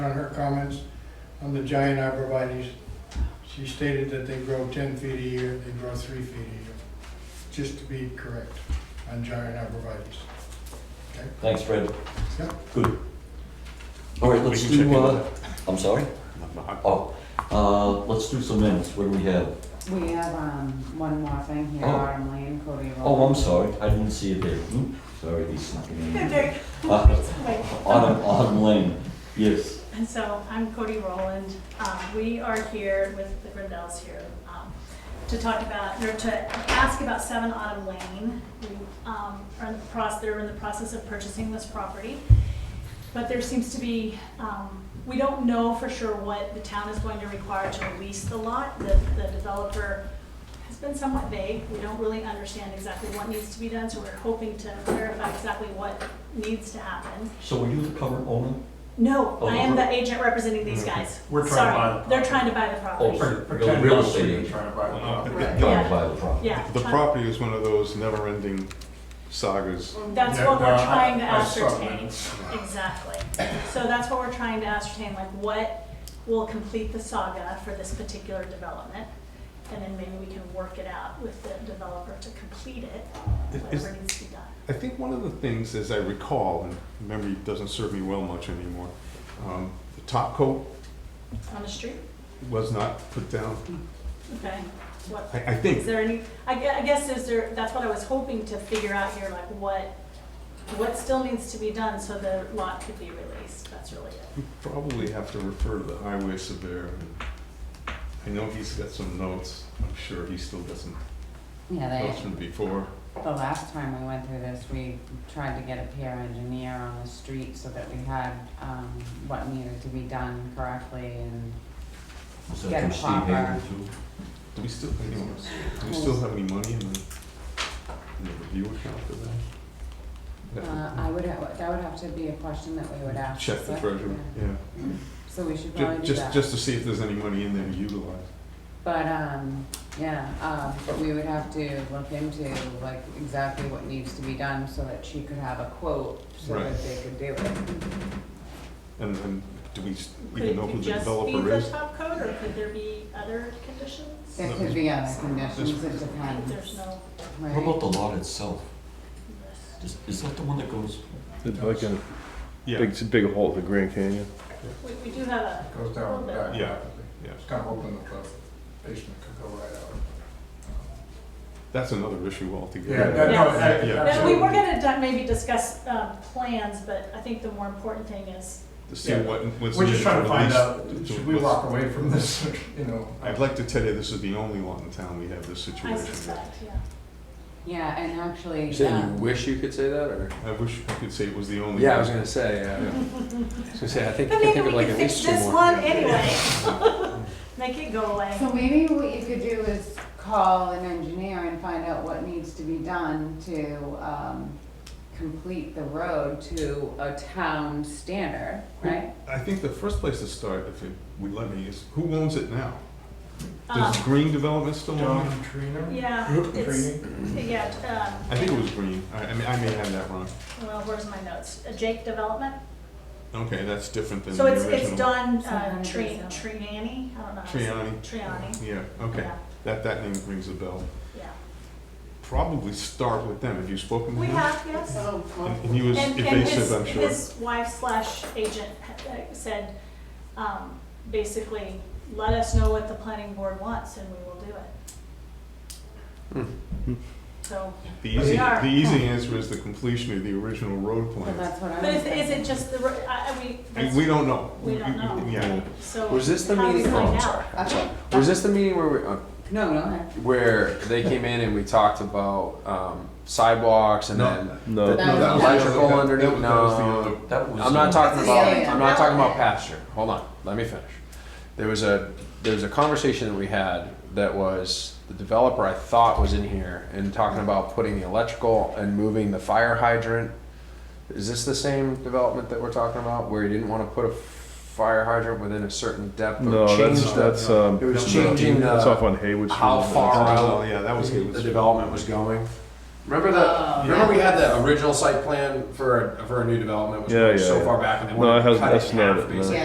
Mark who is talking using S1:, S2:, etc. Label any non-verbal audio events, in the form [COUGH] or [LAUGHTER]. S1: her comments on the giant arborvitae's. She stated that they grow ten feet a year, they grow three feet a year, just to be correct on giant arborvitae's.
S2: Thanks, Fred.
S1: Yeah.
S2: Good. All right,
S3: We
S2: let's
S3: can check
S2: do,
S3: into
S2: uh, I'm sorry?
S3: that.
S2: Oh, uh, let's do some minutes. What do we have?
S4: We have, um, one more thing here,
S2: Oh.
S4: Autumn Lane, Cody Road.
S2: Oh, I'm sorry. I didn't see it there. Hmm, Sorry, these snuck in.
S4: [LAUGHS]
S5: They're-
S2: Uh,
S5: Wait.
S2: Autumn, Autumn Lane, yes.
S5: And so I'm Cody Rowland. Um, We are here with the Grindells here um, to talk about, or to ask about Seven Autumn Lane. We um, are in the process, they're in the process of purchasing this property. But there seems to be, um, we don't know for sure what the town is going to require to release the lot. The the developer has been somewhat vague. We don't really understand exactly what needs to be done, so we're hoping to clarify exactly what needs to happen.
S2: So are you the current owner?
S5: No,
S2: Oh,
S5: I am
S2: we're-
S5: the agent representing these guys.
S6: Mm-hmm. We're trying to
S5: Sorry.
S6: buy the
S5: They're trying to buy the property.
S2: Oh,
S6: Pretend
S2: you're a real
S6: Wall
S2: estate
S6: Street
S2: agent.
S6: Trying to buy the property.
S2: Trying
S5: Right.
S2: to
S5: Yeah.
S2: buy the property.
S5: Yeah.
S7: The
S5: trying-
S7: property is one of those never-ending sagas.
S5: That's
S6: Yeah,
S5: what
S6: no,
S5: we're
S6: I-
S5: trying to
S6: I saw
S5: ascertain.
S6: that.
S5: Exactly. So that's what we're trying to ascertain, like what will complete the saga for this particular development? And then maybe we can work it out with the developer to complete it,
S7: Is-
S5: whatever needs to be done.
S7: I think one of the things, as I recall, and memory doesn't serve me well much anymore, um, the top coat
S5: On the street?
S7: was not put down.
S5: Okay. What,
S7: I, I
S5: is
S7: think,
S5: there any, I gue- I guess is there, that's what I was hoping to figure out here, like what, what still needs to be done so the lot could be released? That's really it.
S7: we probably have to refer to the highway surveyor. and I know he's got some notes. I'm sure he still got some
S4: Yeah,
S7: notes
S4: they,
S7: from before.
S4: the last time we went through this, we tried to get a peer engineer on the street so that we had, um, what needed to be done correctly and
S2: Is that
S4: Yeah,
S2: from Steve
S4: proper.
S2: Hager too?
S7: Do we still, anyone, do we still have any money in the, in the review account for that?
S4: Uh, I would, ha- that would have to be a question that we would ask.
S7: Check the
S4: select-
S7: treasury, yeah.
S4: So we should
S7: Ju-
S4: probably do
S7: Just,
S4: that.
S7: just to see if there's any money in there to utilize.
S4: But, um, yeah, uh, but we would have to look into like exactly what needs to be done so that she could have a quote so
S7: Right.
S4: that they could do it.
S7: And then, do we s-
S5: Could
S7: even know who
S5: it
S7: the
S5: just be
S7: developer
S5: the
S7: is?
S5: top coat, or could there be other conditions?
S4: There
S7: Let
S4: could
S7: me-
S4: be other conditions, it
S5: I think
S4: depends.
S5: There's no,
S4: right?
S2: What about the lot itself? Is, is that the one that goes?
S8: It's like a
S7: Yeah,
S8: big, big hole at the Grand Canyon.
S5: we, we do have a,
S6: Goes down the back.
S7: Yeah. yeah.
S6: It's kind of open that the basement could go right out.
S7: That's another issue
S6: Yeah,
S7: altogether.
S6: that, no, that-
S7: Yeah.
S5: no, we
S6: absolutely.
S5: were gonna di- maybe discuss, um, plans, but I think the more important thing is,
S7: To see what, what's.
S6: We're just trying to find out,
S7: released to-
S6: should we
S7: what's-
S6: walk away from this, [LAUGHS] you know?
S7: I'd like to tell you, this is the only lot in town we have this
S5: I
S7: situation. with.
S5: suspect, yeah.
S4: Yeah, and actually,
S9: You saying you
S4: um,
S9: wish you could say that, or?
S7: I wish I could say it was the only.
S9: Yeah, I
S7: one.
S9: was gonna say. Yeah. I was gonna say. I think I
S5: But
S9: can
S5: maybe
S9: think of
S5: we
S9: like
S5: could
S9: at
S5: fix
S9: least two
S5: this
S9: more.
S5: one anyway.
S9: [LAUGHS]
S5: Make it go away.
S4: so maybe what you could do is call an engineer and find out what needs to be done to, um, complete the road to a town standard, right?
S7: I think the first place to start, if it would let me, is who owns it now?
S5: Um,
S7: Does Green Development still own it?
S6: John Trina?
S5: Yeah, it's, yeah,
S7: I think it was Green. I, I mean, I may have that wrong.
S5: um, well, where's my notes? Uh, Jake Development?
S7: Okay, that's different than the
S5: So it's,
S7: original.
S5: it's Don, uh,
S4: Sometimes
S5: Tri,
S4: it's-
S5: Triani, I don't know. how to say it.
S7: Triani.
S5: Triani,
S7: Yeah, okay.
S5: yeah,
S7: That, that name rings a bell.
S5: yeah.
S7: Probably start with them. Have you spoken
S5: We
S7: with him?
S5: have, yes.
S7: And and he was
S5: And, and
S7: evasive, I'm
S5: his,
S7: sure.
S5: his wife slash agent ha- uh, said, um, basically, let us know what the planning board wants and we will do it.
S7: Hmm.
S5: So,
S7: The
S5: we
S7: easy,
S5: are.
S7: the easy answer is the completion of the original road
S4: Well,
S7: plan.
S4: that's what I was
S5: but is, is
S4: thinking.
S5: it just the, ro- I, I mean,
S7: I mean,
S5: that's-
S7: We don't know.
S5: we don't know.
S7: Yeah.
S5: so.
S9: Was this the
S5: how do we
S9: meeting? Oh,
S5: find
S9: I'm
S5: out?
S9: sorry. I'm sorry.
S4: Okay.
S9: Was this the meeting where we, uh,
S4: No, no,
S9: where they came in and we talked about um, sidewalks and
S7: No.
S9: then?
S8: No,
S4: That was-
S7: was the other-
S9: Electrical
S7: that- that
S9: underneath?
S7: was- that was the
S9: No.
S7: other-
S2: That was.
S9: I'm not
S2: uh,
S9: talking about.
S4: Yeah.
S9: I'm not talking about pasture. Hold on, let me finish. There was a there was a conversation that we had that was the developer I thought was in here and talking about putting the electrical and moving the fire hydrant. Is this the same development that we're talking about where you didn't want to put a fire hydrant within a certain depth?
S8: no,
S9: of change
S8: that's that's um.
S9: It was changing the-
S8: That's off on Haywood. Street.
S9: how far
S7: Oh,
S9: out
S7: yeah, that was
S9: the
S7: good.
S9: development was going. Remember the
S4: Oh.
S9: remember we had the original site plan for a, for a new development was
S8: Yeah,
S9: going
S8: yeah,
S9: so
S8: yeah.
S9: far back and they
S8: No, it
S9: wanted to
S8: has-
S9: cut it
S8: that's
S9: in half
S8: not it, no.
S9: basically.
S4: Yeah.